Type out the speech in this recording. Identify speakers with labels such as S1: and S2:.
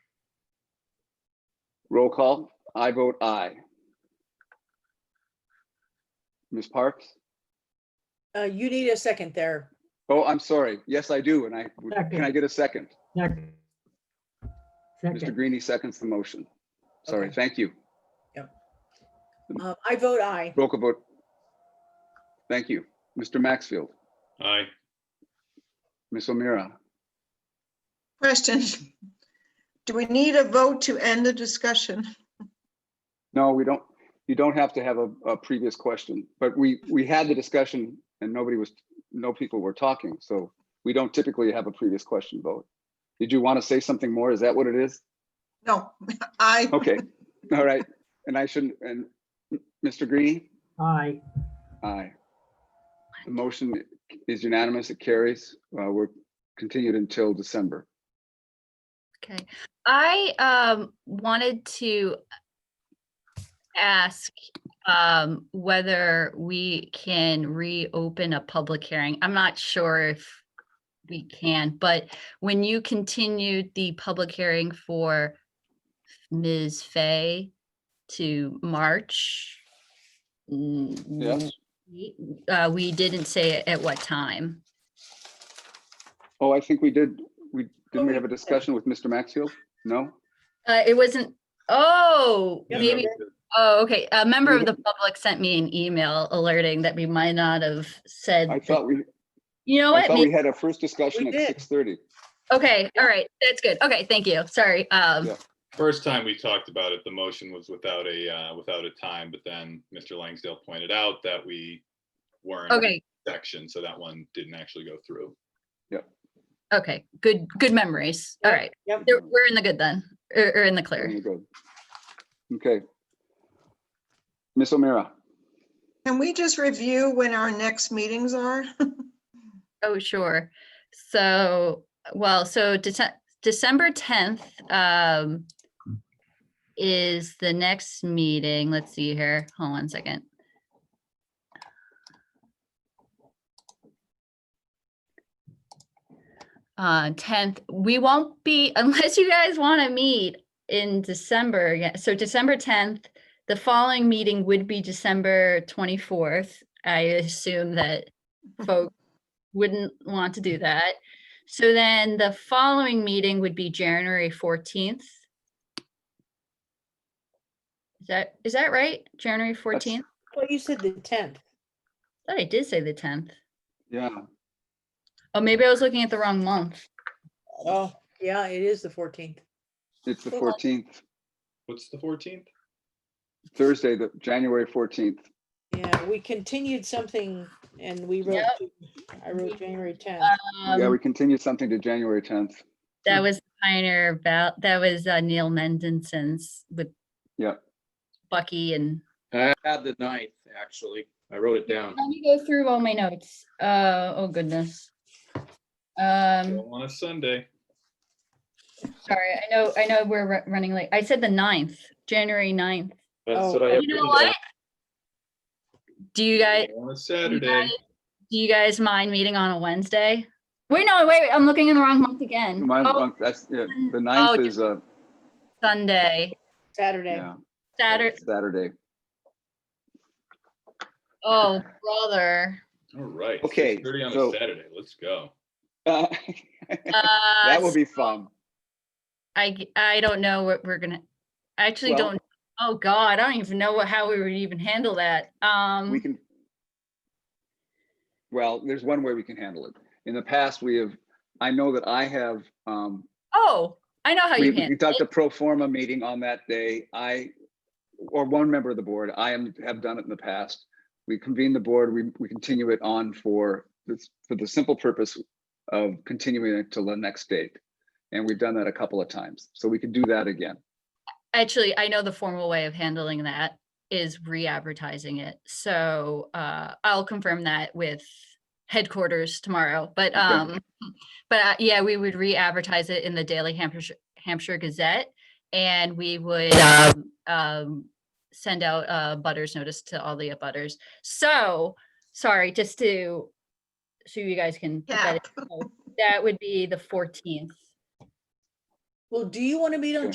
S1: Roll call. I vote aye. Ms. Parks?
S2: Uh, you need a second there.
S1: Oh, I'm sorry. Yes, I do. And I, can I get a second?
S3: Second.
S1: Mr. Greeny seconds the motion. Sorry,
S2: Okay.
S1: thank you.
S2: Um, I vote aye.
S1: Roll call vote. Thank you. Mr. Maxfield,
S4: Aye.
S1: Ms. O'Meara,
S5: Question. Do we need a vote to end the discussion?
S1: No, we don't, you don't have to have a, a previous question, but we, we had the discussion and nobody was, no people were talking, so we don't typically have a previous question vote. Did you want to say something more? Is that what it is?
S5: No, I,
S1: Okay, all right, and I shouldn't, and Mr. Greeny?
S3: Aye.
S1: Aye. The motion is unanimous, it carries, uh, we're continued until December.
S6: Okay, I um wanted to ask um whether we can reopen a public hearing. I'm not sure if we can, but when you continued the public hearing for Ms. Fay to March, mm,
S1: Yes?
S6: we- uh, we didn't say at what time.
S1: Oh, I think we did, we, didn't
S6: Oh,
S1: we have a discussion with Mr. Maxfield? No?
S6: Uh, it wasn't, oh,
S4: Yeah,
S6: maybe Oh, okay. A member of the public sent me an email alerting that we might not have said.
S1: I
S6: that-
S1: thought we,
S6: You know
S1: I
S6: what?
S1: thought we
S6: May-
S1: had our first discussion
S2: We
S1: at
S2: did.
S1: six thirty.
S6: Okay, all right. That's good. Okay, thank you. Sorry. Um,
S1: Yeah.
S4: First time we talked about it, the motion was without a, uh, without a time, but then Mr. Langsdale pointed out that we weren't.
S6: okay,
S4: Section, so that one didn't actually go through.
S6: okay. Good, good memories. All
S2: Yeah.
S6: right.
S2: Yep.
S6: There- We're in the good then, or, or in the clear.
S1: Very good. Okay. Ms. O'Meara,
S5: can we just review when our next meetings are?
S6: Oh, sure. So, well, so Dece- December tenth, um, is the next meeting. Let's see here. Hold on a second. Uh, tenth, we won't be, unless you guys want to meet in December, yeah, so December tenth, the following meeting would be December twenty-fourth. I assume that folks wouldn't want to do that. So then the following meeting would be January fourteenth. Is that, is that right? January fourteenth?
S2: Well, you said the tenth.
S6: Thought I did say the tenth.
S1: yeah,
S6: Oh, maybe I was looking at the wrong month.
S2: Oh, yeah, it is the fourteenth.
S1: it's the
S6: Well-
S1: fourteenth,
S4: What's the fourteenth?
S1: Thursday, the, January fourteenth.
S2: Yeah, we continued something and we wrote,
S6: Yep.
S2: to- I wrote January tenth.
S1: Yeah, we
S6: Um,
S1: continue something to January tenth.
S6: that was Pioneer about, that was uh, Neil Mendenson's with
S1: Yeah.
S6: Bucky and
S7: I had the ninth, actually. I wrote it down.
S6: let me go through all my notes. Uh, oh goodness. Um.
S4: On a Sunday.
S6: Sorry, I know, I know we're ru- running late. I said the 9th, January 9th.
S7: That's
S2: Oh,
S7: what I have
S6: You know
S7: written
S6: what?
S7: down.
S6: Do you guys,
S4: On a
S6: do you
S4: Saturday.
S6: guys- do you guys mind meeting on a Wednesday? Wait, no, wait, I'm looking in the wrong month again.
S1: Mine-
S6: Oh,
S1: mine- that's- yeah, The
S6: Oh,
S1: ninth
S6: just-
S1: is, uh,
S6: Sunday,
S2: Saturday.
S1: yeah,
S6: Saturday,
S1: Saturday.
S6: oh, brother.
S4: All right.
S1: Okay,
S4: Thirty on
S1: so-
S4: a Saturday. Let's go.
S1: Uh,
S6: Uh,
S1: That will be fun.
S6: I, g- I don't know what we're gonna, I actually
S1: Well-
S6: don't, oh God, I don't even know what- how we would even handle that.
S1: We
S6: Um,
S1: can. Well, there's one way we can handle it. In the past, we have, I know that I have, um,
S6: oh, I know how
S1: We
S6: you
S1: we
S6: handle
S1: conduct
S6: it.
S1: a pro forma meeting on that day. I, or one member of the board, I am, have done it in the past. We convene the board, we, we continue it on for, this for the simple purpose of continuing it till the next date. And we've done that a couple of times, so we could do that again.
S6: Actually, I know the formal way of handling that is re-advertising it. So uh, I'll confirm that with headquarters tomorrow. But
S1: Okay.
S6: um, but uh, yeah, we would re-advertise it in the Daily Hampshire Hampshire Gazette, and we would um, um, send out a butters notice to all the butters. So sorry, just to so you guys can put that
S5: Yeah.
S6: in. So that would be the 14th.
S2: Well, do you want to meet on